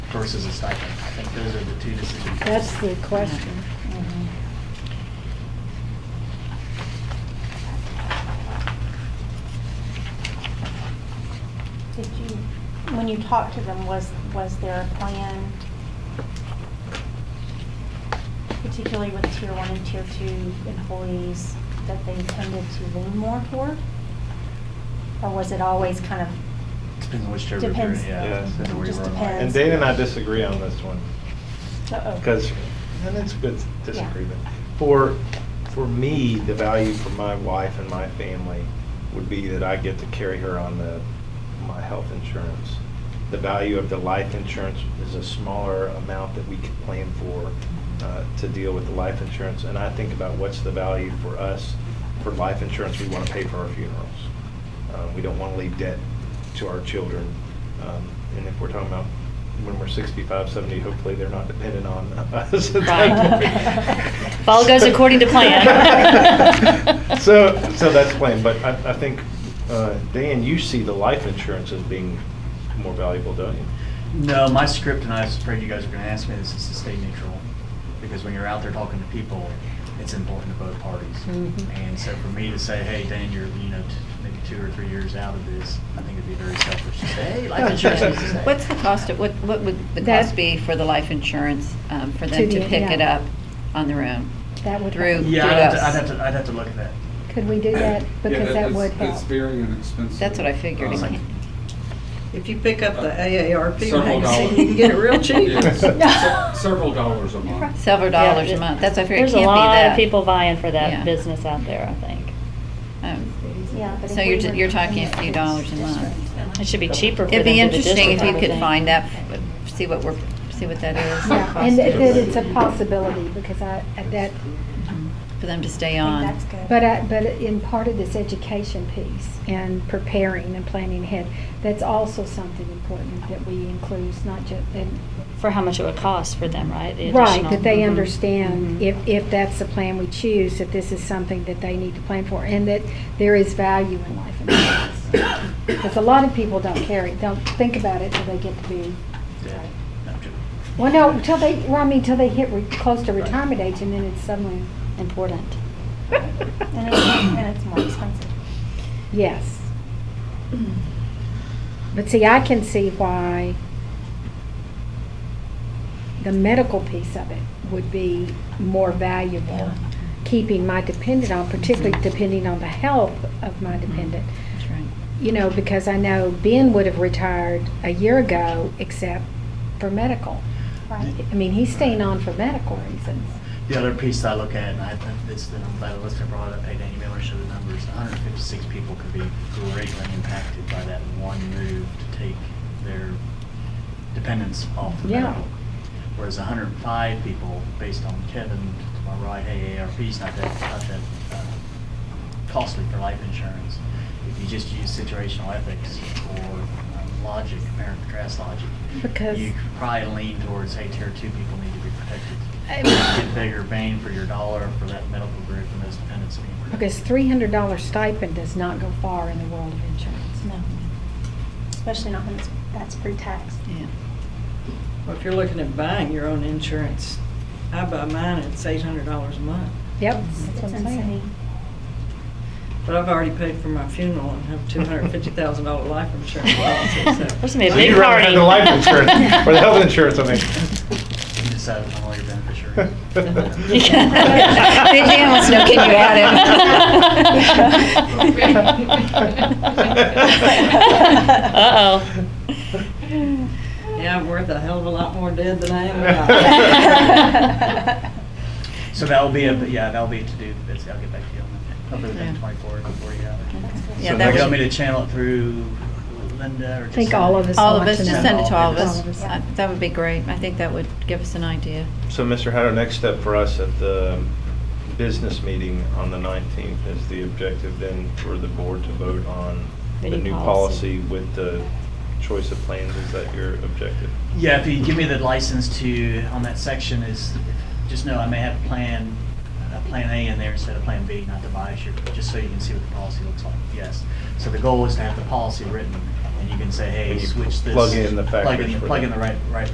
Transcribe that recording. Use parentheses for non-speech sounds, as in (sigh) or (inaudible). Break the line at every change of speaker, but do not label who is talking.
versus a stipend. I think those are the two decisions.
That's the question.
Did you, when you talked to them, was, was there a plan, particularly with tier one and tier two employees, that they tended to lean more toward? Or was it always kind of,
Depends on which chair we're
Depends.
in, yeah.
Yes.
depends on where you
Just
were in line.
depends.
And Dana and I disagree on this one,
uh-oh?
because, and it's a good disagreement. For, for me, the value for my wife and my family would be that I get to carry her on the, my health insurance. The value of the life insurance is a smaller amount that we can plan for uh, to deal with the life insurance. And I think about what's the value for us, for life insurance, we want to pay for our funerals. Uh, We don't want to leave debt to our children. Um, And if we're talking about when we're 65, 70, hopefully they're not dependent on us. (laughs)
Right. If all goes according to plan.
So, so that's plan, but I, I think, uh, Dan, you see the life insurance as being more valuable, don't you?
No, my script, and I was afraid you guys were gonna ask me this, is to stay neutral. Because when you're out there talking to people, it's important to both parties.
Mm-hmm.
Mhm.
And so for me to say, hey, Dan, you're, you know, t- maybe two or three years out of this, I think it'd be very selfish to say, hey,
(laughs)
life insurance is the same.
What's the cost of, what, what would the
That-
cost be for the life insurance, um, for them
To
to
the-
pick
yeah.
it up on their own?
That would,
Through-
help.
Yeah, I'd have to-
Yes.
I'd have to, I'd have to look at that.
could we do that? Because that would
It's
help.
very inexpensive.
That's what I figured.
Um,
It can't-
If you pick up the AARP
Several dollars.
magazine, you can get it real
(laughs)
cheap.
Yes.
(laughs)
Se- Several dollars a month.
Several
Yeah,
dollars a
it-
month, that's what I figured, it
There's a
can't be that.
lot of people vying for
Yeah.
that business out there, I think.
Um,
Yeah, but
So
if
you're
we
ju-
were
you're talking
in
a few
this
dollars a month.
district-
It should be cheaper for
It'd
them
be
to the
interesting if
district,
you
I
could
would
find
think.
that, see what we're, see what that is. the
Yeah,
cost
And that
is.
that it's a possibility because I, I- that,
For them to stay
I
on.
think that's good.
but I, but in part of this education piece and preparing and planning ahead, that's also something important that we include, It's not just, and
For how much it would cost for them, right? the
Right,
additional-
that they
Mhm.
understand
Mhm.
if, if that's the plan we choose, that this is something that they need to plan for, and that there is value in life insurance. Because a lot of people don't carry, don't think about it till they get to be,
Yeah. No, I'm joking.
well, no, till they, well, I mean, till they hit re- close to
Right.
retirement age, and then it's suddenly,
Important.
And it's, and it's more expensive.
yes. But see, I can see why the medical piece of it would be more valuable keeping my dependent on, particularly depending on the health of my dependent.
That's right.
You know, because I know Ben would have retired a year ago except for medical.
Right.
I mean, he's staying on for medical reasons.
The other piece that I look at, and I think this, and I'm glad the listener brought it up, hey, Danny Miller showed the numbers, 156 people could be greatly impacted by that one move to take their dependence off the
Yeah.
medical. Whereas 105 people, based on Kevin, to my right, hey, AARP's not that, not that uh, costly for life insurance. If you just use situational ethics or um, logic, compare and contrast logic,
Because-
you could probably lean towards, hey, tier two people need to be protected get
I-
bigger bang for your dollar for that medical group and those dependents being protected.
Because three hundred dollar stipend does not go far in the world of insurance.
No. Especially not when it's, that's pre-tax.
Yeah.
Well, If you're looking at buying your own insurance, I buy mine, it's eight hundred dollars a month.
Yep.
It's
that's
it's
what I'm saying.
insane.
But I've already paid for my funeral and have two hundred and fifty thousand dollar life insurance
(laughs)
policy, so.
(laughs) There's gonna be a
So
big
you'd rather
party.
have the life
(laughs)
insurance, or the health insurance, I mean.
(laughs)
You decide on all your
(laughs)
beneficiaries.
Big
Dan wants to know, can you
add him?
Yeah, I'm worth a hell of a lot more dead than I am
Uh-oh.
(laughs)
So that'll be a, yeah, that'll be to do, that's, I'll get back to you on that, hopefully within
Yeah.
twenty-four, before you have it.
Yeah,
So
that
you
was-
want me to channel it through Linda or just?
I think
send
all
it?
of us.
All of
want
us,
to
just
know.
send it to all of
All of us.
us. I- That would be great. I think that would give us an idea.
So, Mr. Hatter, next step for us at the business meeting on the 19th is the objective then for the board to vote on the
The new
new policy
policy.
with the choice of plans, is that your objective?
Yeah, if you give me the license to, on that section is, just know I may have a plan, a plan A in there instead of plan B, not to bias you, just so you can see what the policy looks like, yes. So the goal is to have the policy written, and you can say, hey,
And you
switch this.
plug in the
plug in-
factors for
Plug in
that.
the right, right